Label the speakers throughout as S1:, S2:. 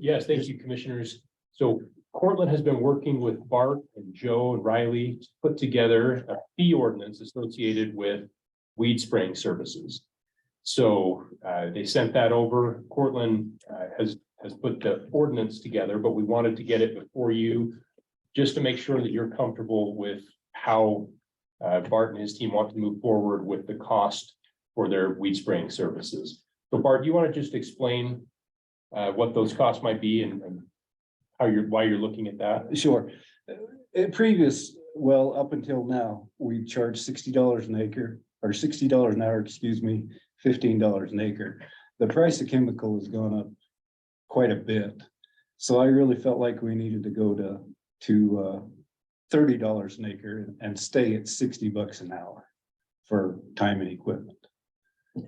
S1: yes, thank you, commissioners. So Cortland has been working with Bart and Joe and Riley to put together a fee ordinance associated with weed spraying services. So uh, they sent that over. Cortland uh, has, has put the ordinance together, but we wanted to get it before you just to make sure that you're comfortable with how uh, Bart and his team want to move forward with the cost for their weed spraying services. So Bart, do you want to just explain uh, what those costs might be and, and how you're, why you're looking at that.
S2: Sure. Uh, At previous, well, up until now, we charged sixty dollars an acre, or sixty dollars an hour, excuse me, fifteen dollars an acre. The price of chemical has gone up quite a bit. So I really felt like we needed to go to, to, uh, thirty dollars an acre and stay at sixty bucks an hour for time and equipment.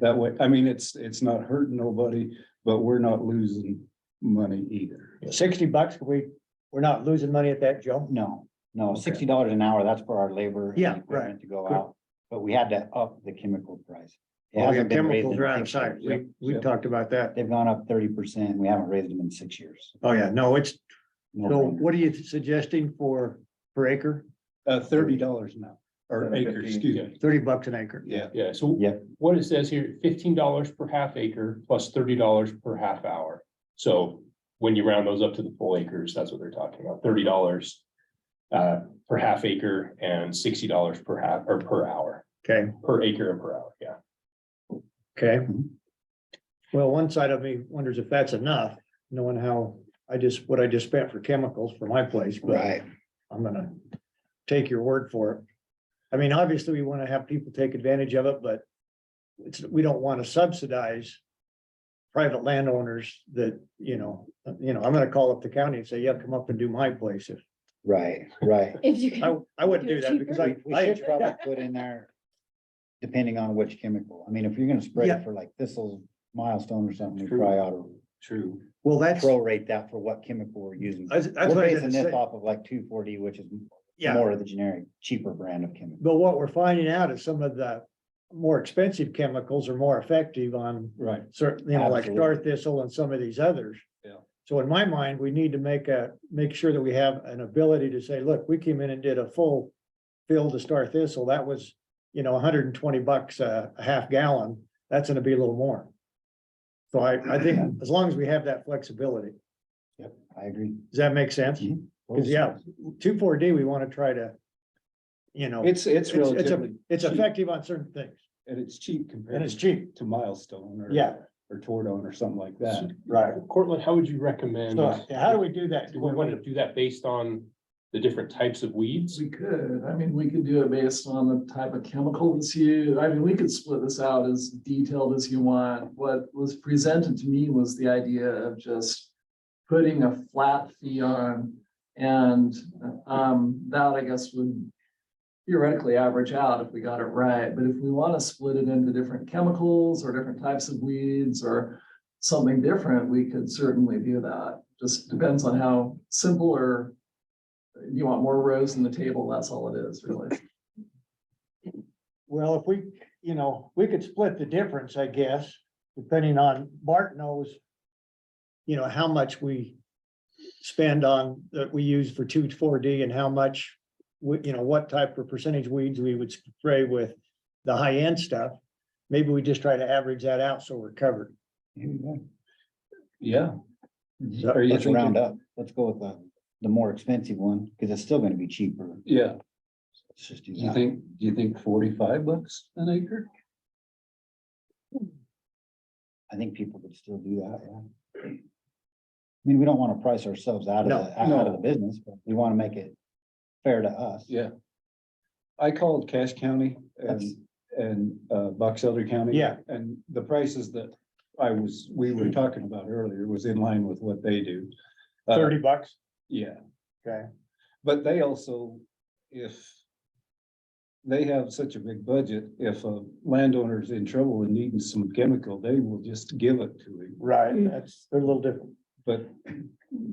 S2: That way, I mean, it's, it's not hurting nobody, but we're not losing money either.
S3: Sixty bucks, we, we're not losing money at that, Joe?
S4: No, no,
S3: Okay.
S4: sixty dollars an hour, that's for our labor. and
S3: Yeah, right.
S4: equipment To go
S3: Good.
S4: out, but we had to up the chemical price. It
S3: Oh, yeah,
S4: hasn't been raised
S3: chemicals
S4: in
S3: are out of
S4: six
S3: sight.
S4: years.
S3: We, we talked about that.
S4: They've gone up thirty percent, we haven't raised them in six years.
S3: Oh, yeah, no, it's,
S4: No
S3: so
S4: brainer.
S3: what are you suggesting for per acre?
S2: Uh, thirty dollars an hour, or acre, excuse me,
S3: Thirty bucks an acre?
S2: yeah.
S1: Yeah, so
S4: Yeah.
S1: what it says here, fifteen dollars per half acre plus thirty dollars per half hour. So when you round those up to the full acres, that's what they're talking about, thirty dollars uh, per half acre and sixty dollars per half, or per hour,
S3: Okay,
S1: per acre and per hour, yeah.
S3: okay. Mhm. Well, one side of me wonders if that's enough, knowing how I just, what I just spent for chemicals for my place, but
S4: Right,
S3: I'm gonna take your word for it. I mean, obviously, we want to have people take advantage of it, but it's, we don't want to subsidize private landowners that, you know, you know, I'm gonna call up the county and say, yeah, come up and do my place. If-
S4: right, right.
S5: If you can,
S3: I, I wouldn't do that because I,
S4: We we
S3: I,
S4: should probably put in there, depending on which chemical, I mean, if you're gonna spray
S3: Yeah.
S4: it for like this'll milestone or something, we
S2: True.
S4: probably ought to
S2: True.
S3: well, that's,
S4: prorate that for what chemical we're using.
S3: that's that's
S4: We're
S3: what I was
S4: basing
S3: gonna
S4: this
S3: say.
S4: off of like two forty, which is
S3: Yeah,
S4: more of the generic, cheaper brand of chemical.
S3: but what we're finding out is some of the more expensive chemicals are more effective on
S2: Right.
S3: certain, you know, like
S4: Absolutely.
S3: star thistle and some of these others.
S2: Yeah.
S3: So in my mind, we need to make a, make sure that we have an ability to say, look, we came in and did a full fill to star thistle. That was, you know, hundred and twenty bucks a, a half gallon. That's gonna be a little more. So I, I think as long as we have that flexibility,
S4: I agree.
S3: does that make sense?
S4: Mhm.
S3: Cause yeah, two, four D, we wanna try to, you know,
S2: It's, it's
S3: It's- it's a-
S2: relatively,
S3: it's
S2: cheap.
S3: effective on certain things
S2: and it's cheap
S3: and
S2: compared
S3: it's cheap.
S2: to Milestone or.
S3: Yeah.
S2: Or Tordone or something like that.
S3: Right.
S1: Cortland, how would you recommend?
S3: So how do we do that?
S1: Do we want to do that based on the different types of weeds?
S6: We could, I mean, we could do it based on the type of chemical that's used. I mean, we could split this out as detailed as you want. What was presented to me was the idea of just putting a flat fee on. And um, that I guess would theoretically average out if we got it right. But if we want to split it into different chemicals or different types of weeds or something different, we could certainly do that. Just depends on how simple or you want more rows in the table, that's all it is, really.
S3: Well, if we, you know, we could split the difference, I guess, depending on, Bart knows. You know, how much we spend on, that we use for two, four D and how much. We, you know, what type of percentage weeds we would spray with the high end stuff. Maybe we just try to average that out so we're covered.
S4: Here we go.
S2: Yeah.
S3: So-
S2: Are you
S4: Mm-hmm. Let's
S2: thinking-
S4: round up. Let's go with the, the more expensive one, because it's still gonna be cheaper.
S2: Yeah,
S4: Let's just
S2: do
S4: do
S2: you
S4: that.
S2: think, do you think forty-five bucks an acre?
S4: I think people could still do that, yeah. I mean, we don't wanna price ourselves out
S3: No,
S4: of, the- out of the business, but we wanna make it fair to us.
S2: Yeah. I called Cache County and,
S4: That's-
S2: and, uh, Box Elder County.
S3: Yeah. Mm-hmm.
S2: And the prices that I was, we were talking about earlier was in line with what they do. Uh,
S3: Thirty bucks,
S2: Yeah.
S3: Okay.
S2: But they also, if they have such a big budget, if a landowner's in trouble and needing some chemical, they will just give it to him,
S3: right, that's, they're a little different.
S2: but.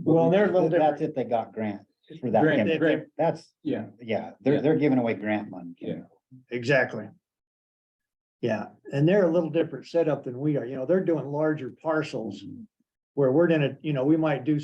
S3: Well, they're a little
S4: That's
S3: different.
S4: if they got grant for that.
S2: Grant,
S4: chemical.
S3: grant.
S4: That's,
S2: Yeah,
S4: yeah,
S2: Yeah.
S4: they're, they're giving away grant money.
S2: Yeah.
S3: Exactly. Yeah, and they're a little different setup than we are, you know, they're doing larger parcels. Where we're gonna, you know, we might do